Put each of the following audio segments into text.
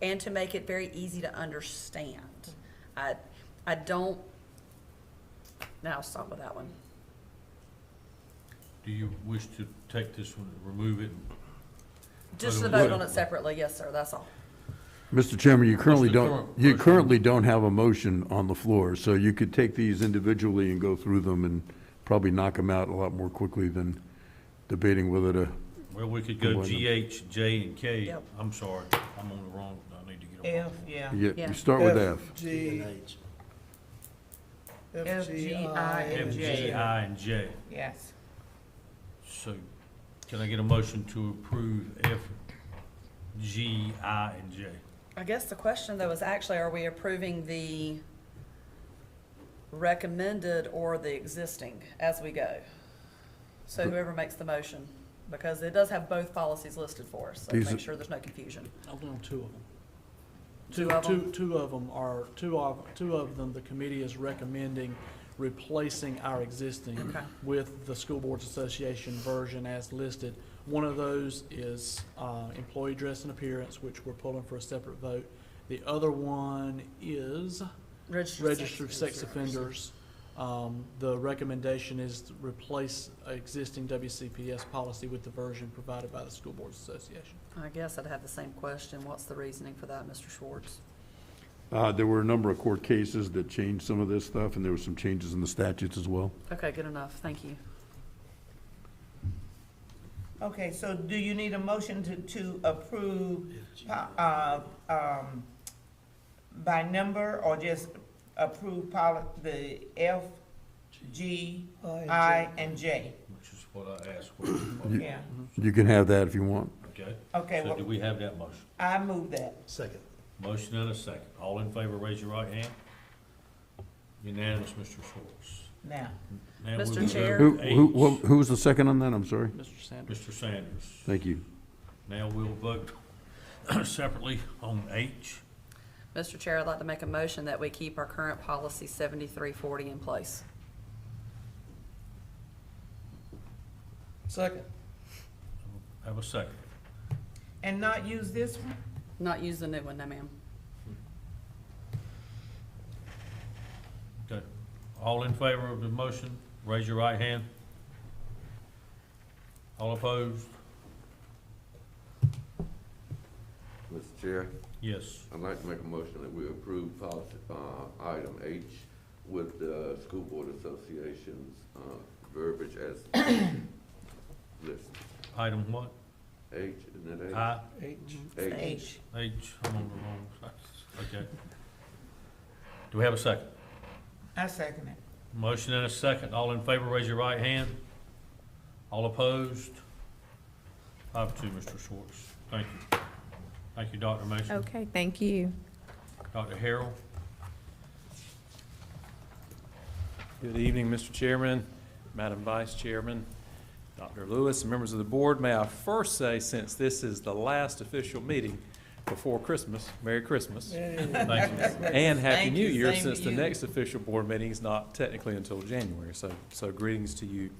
and to make it very easy to understand. I, I don't, now I'll stop with that one. Do you wish to take this one, and remove it? Just to Otherwise- vote on it separately, yes, sir, that's all. Mr. Chairman, you currently the don't, current you motion? currently don't have a motion on the floor, so you could take these individually and go through them and probably knock them out a lot more quickly than debating whether to, Well, we could go Combine them. G, H, J, and K. Yep. I'm sorry, I'm on the wrong, I need to get on. the F, wrong one. yeah. yeah, Yeah. you start with F, F. G, F, F, G, G, I, I, and F, and G, J. I, and J. Yes. So can I get a motion to approve F, G, I, and J? I guess the question though is actually, are we approving the recommended or the existing as we go? So whoever makes the motion, because it does have both policies listed for us, so These make are- sure there's no confusion. I found two of them. Two of 'em? Two, two of them are, two of, two of them, the committee is recommending replacing our existing Okay. with the School Boards Association version as listed. One of those is uh, employee dress and appearance, which we're pulling for a separate vote. The other one is registered sex offenders. Um, The recommendation is to replace existing WCPS policy with the version provided by the School Boards Association. I guess I'd have the same question. What's the reasoning for that, Mr. Schwartz? Uh, there were a number of court cases that changed some of this stuff, and there were some changes in the statutes as well. Okay, good enough. Thank you. Okay, so do you need a motion to, to approve, uh, um, by number or just approve poli, the F, G, I, and J? Which is what I asked for. You- Yeah, You can have that if you want. Okay, okay, so do well, we have that motion? I move that. Second. Motion and a second. All in favor, raise your right hand. Unanimous, Mr. Schwartz. Now, Now we Mr. will go Chair. to Who, who, H. wha- who was the second on that? I'm sorry. Mr. Sanders? Mr. Sanders. Thank you. Now we'll vote separately on H. Mr. Chair, I'd like to make a motion that we keep our current policy seventy-three forty in place. Second. Have a second. and not use this one? Not use the new one, no ma'am. Okay. All in favor of the motion, raise your right hand. All opposed? Mr. Chair, Yes. I'd like to make a motion that we approve policy, uh, item H with the School Board Association's, uh, verbiage as listed. Item what? H, isn't it H? I, H. H. H, I'm on the wrong side. Okay. Do we have a second? I second it. Motion and a second. All in favor, raise your right hand. All opposed? Five two, Mr. Schwartz. Thank you. Thank you, Dr. Mason. Okay, thank you. Dr. Harrell. Good evening, Mr. Chairman, Madam Vice Chairman, Dr. Lewis, and members of the board. May I first say, since this is the last official meeting before Christmas, Merry Christmas Thank you. and Happy Thank New you, Year, same to since the you. next official board meeting is not technically until January, so, so greetings to you.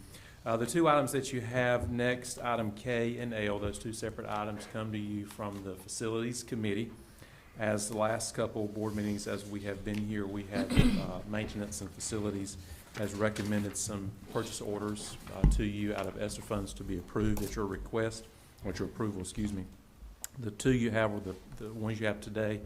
Uh, the two items that you have next, item K and L, those two separate items come to you from the Facilities Committee. As the last couple of board meetings, as we have been here, we have, uh, Maintenance and Facilities has recommended some purchase orders, uh, to you out of ESSER funds to be approved at your request, or at your approval, excuse me. The two you have are the, the ones you have today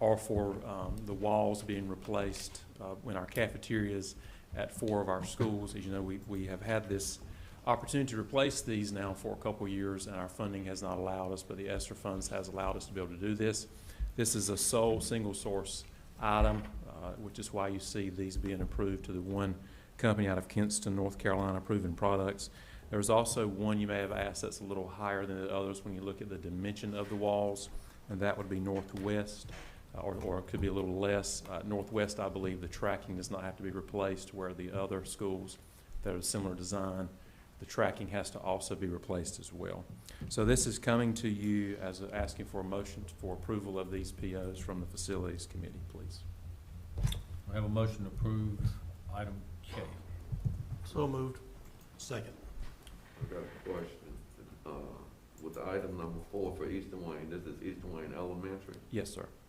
are for um, the walls being replaced uh, in our cafeterias at four of our schools. As you know, we, we have had this opportunity to replace these now for a couple of years, and our funding has not allowed us, but the ESSER funds has allowed us to be able to do this. This is a sole, single-source item, uh, which is why you see these being approved to the one company out of Kinston, North Carolina, Proven Products. There's also one you may have asked that's a little higher than the others when you look at the dimension of the walls, and that would be Northwest, uh, or, or it could be a little less. Uh, Northwest, I believe, the tracking does not have to be replaced, where the other schools that are similar design, the tracking has to also be replaced as well. So this is coming to you as, a- asking for a motion for approval of these POs from the Facilities Committee, please. I have a motion to approve item K. So moved. Second. I got a question. Uh, with item number four for Eastern Wayne. This is Eastern Wayne Elementary. Yes, sir.